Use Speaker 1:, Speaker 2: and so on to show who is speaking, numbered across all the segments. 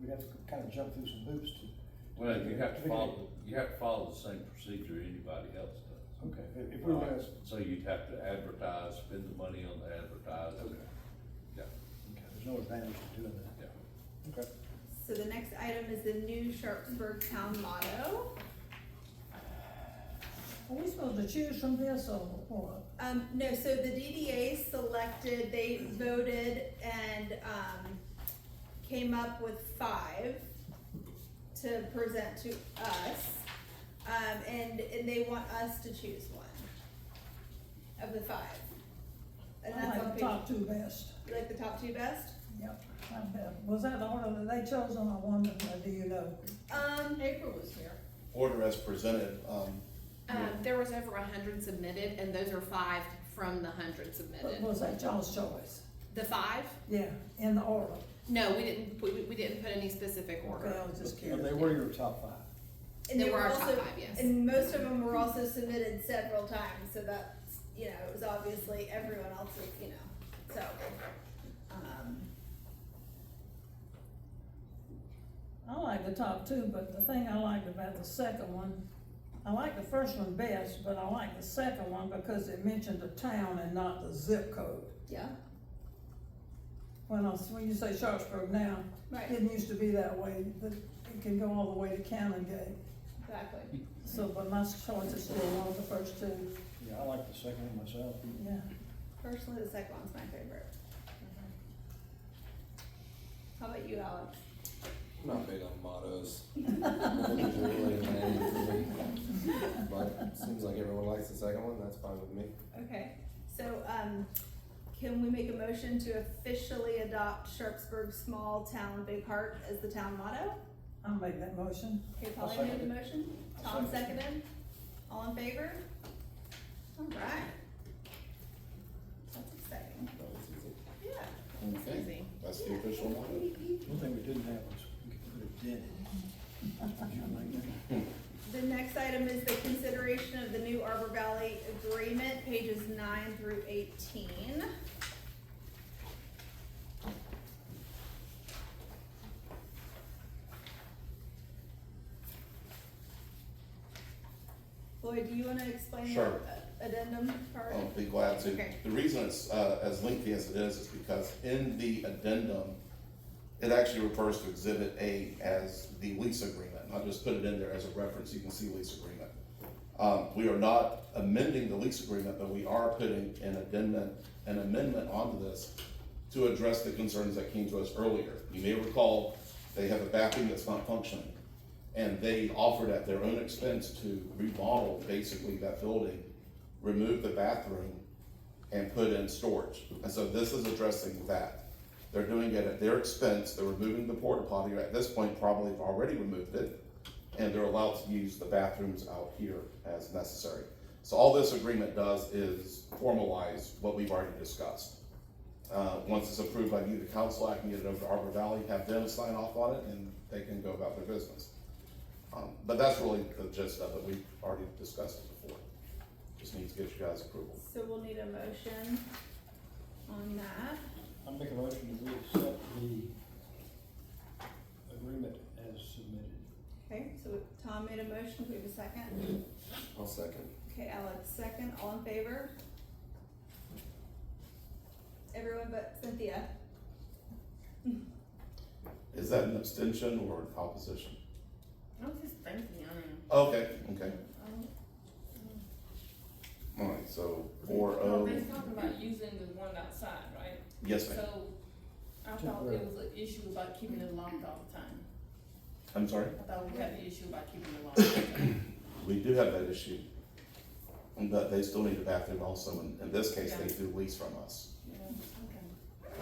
Speaker 1: we'd have to kind of jump through some hoops to.
Speaker 2: Well, you have to
Speaker 1: get-
Speaker 2: follow, you have to follow the same procedure anybody else does.
Speaker 1: Okay, if- if we were gonna,
Speaker 2: So you'd have to advertise, spend the money on the advertising.
Speaker 1: Okay.
Speaker 2: Yeah,
Speaker 1: okay, there's no advantage to doing that.
Speaker 2: yeah.
Speaker 1: Okay.
Speaker 3: So the next item is the new Sharpsburg town motto.
Speaker 4: Are we supposed to choose from this or what?
Speaker 3: Um, no, so the DDA selected, they voted and, um, came up with five to present to us. Um, and, and they want us to choose one of the five. And
Speaker 4: I
Speaker 3: that's on
Speaker 4: like the top
Speaker 3: page,
Speaker 4: two best.
Speaker 3: you like the top two best?
Speaker 4: Yep, I bet. Was that the order that they chose on the one, that- do you know?
Speaker 3: Um,
Speaker 5: April was here.
Speaker 6: order as presented, um,
Speaker 5: Um, there was over a hundred submitted, and those are five from the hundred
Speaker 4: But
Speaker 5: submitted.
Speaker 4: Was that y'all's choice?
Speaker 5: The five?
Speaker 4: Yeah, in the order.
Speaker 5: No, we didn't, we, we- we didn't put any specific
Speaker 4: Okay, I
Speaker 5: order.
Speaker 4: was just
Speaker 1: But they
Speaker 4: curious.
Speaker 1: were your top five.
Speaker 3: and
Speaker 5: They
Speaker 3: they
Speaker 5: were
Speaker 3: were
Speaker 5: our top
Speaker 3: also,
Speaker 5: five, yes.
Speaker 3: and most of them were also submitted several times, so that's, you know, it was obviously everyone else's, you know, so. Um,
Speaker 4: I like the top two, but the thing I liked about the second one, I like the first one best, but I like the second one because it mentioned the town and not the zip code.
Speaker 3: yeah,
Speaker 4: When I, when you say Sharpsburg now,
Speaker 3: Right.
Speaker 4: it used to be that way, but it can go all the way to Canongate.
Speaker 3: exactly.
Speaker 4: So, but my choice is still one of the first two,
Speaker 1: Yeah, I like the second one myself.
Speaker 4: yeah.
Speaker 3: Personally, the second one's my favorite.
Speaker 5: Mm-hmm.
Speaker 3: How about you, Alex?
Speaker 7: I'm not big on mottos. I think it's really lame for me. But it seems like everyone likes the second one, that's fine with me.
Speaker 3: Okay, so, um, can we make a motion to officially adopt Sharpsburg Small Town Big Heart as the town motto?
Speaker 4: I'll make that motion.
Speaker 3: Okay,
Speaker 1: I'll
Speaker 3: Polly made
Speaker 1: second
Speaker 3: the motion,
Speaker 1: I'll
Speaker 3: Tom
Speaker 1: second
Speaker 3: seconded, all in favor? All right. That's exciting,
Speaker 6: that was easy.
Speaker 3: yeah.
Speaker 6: Okay,
Speaker 5: Easy.
Speaker 6: that's the official motto.
Speaker 1: One thing we didn't have was, we could put a dent in it. Would you like that?
Speaker 3: The next item is the consideration of the new Arbor Valley Agreement, pages nine through eighteen. Lloyd, do you wanna explain
Speaker 6: Sure. Oh,
Speaker 3: the addendum part?
Speaker 6: I'll be glad to.
Speaker 3: Okay.
Speaker 6: The reason it's, uh, as lengthy as it is, is because in the addendum, it actually refers to exhibit A as the lease agreement, and I just put it in there as a reference, you can see lease agreement. Um, we are not amending the lease agreement, but we are putting an addendum, an amendment onto this to address the concerns that came to us earlier. You may recall, they have a bathroom that's not functioning, and they offered at their own expense to remodel basically that building, remove the bathroom, and put in storage. And so this is addressing that. They're doing it at their expense, they're removing the porta potty, at this point probably have already removed it, and they're allowed to use the bathrooms out here as necessary. So all this agreement does is formalize what we've already discussed. Uh, once it's approved by you, the council, I can get it over to Arbor Valley, have them sign off on it, and they can go about their business. Um, but that's really the gist of it, we've already discussed it before, just need to get you guys approval.
Speaker 3: So we'll need a motion on that.
Speaker 1: I make a motion that we accept the agreement as submitted.
Speaker 3: Okay, so Tom made a motion, we have a second.
Speaker 7: I'll second.
Speaker 3: Okay, Alex, second, all in favor? Everyone but Cynthia.
Speaker 6: Is that an abstention or an opposition?
Speaker 5: I was just thinking,
Speaker 6: Okay, okay,
Speaker 3: Um,
Speaker 6: all right, so four
Speaker 8: Well,
Speaker 6: oh,
Speaker 8: they're talking about using the one outside, right?
Speaker 6: yes ma'am,
Speaker 8: So I thought
Speaker 1: Temporary.
Speaker 8: there was an issue about keeping it locked all the time.
Speaker 6: I'm sorry,
Speaker 8: I thought we had the issue about keeping it locked all the time.
Speaker 6: we do have that issue. And that they still need a bathroom also, and in this case, they do lease from us.
Speaker 8: Yeah, okay.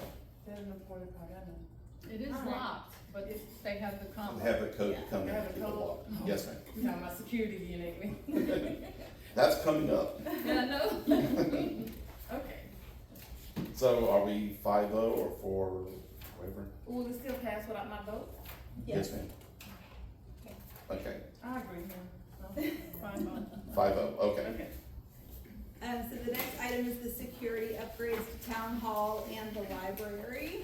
Speaker 8: There's no porta potty, I know.
Speaker 5: It is locked, but they have the combo.
Speaker 6: They have a code to come in
Speaker 8: They have
Speaker 6: and
Speaker 8: a
Speaker 6: keep it
Speaker 8: code.
Speaker 6: locked, yes ma'am,
Speaker 8: You know, my security unit, we,
Speaker 6: that's coming up,
Speaker 8: yeah, I know. Okay.
Speaker 6: so are we five oh or four, whatever?
Speaker 8: Will it still pass without my vote?
Speaker 6: Yes ma'am. Okay,
Speaker 8: I agree, yeah. No, Fine, vote.
Speaker 6: five oh, okay,
Speaker 8: okay.
Speaker 3: Um, so the next item is the security upgrades to town hall and the library.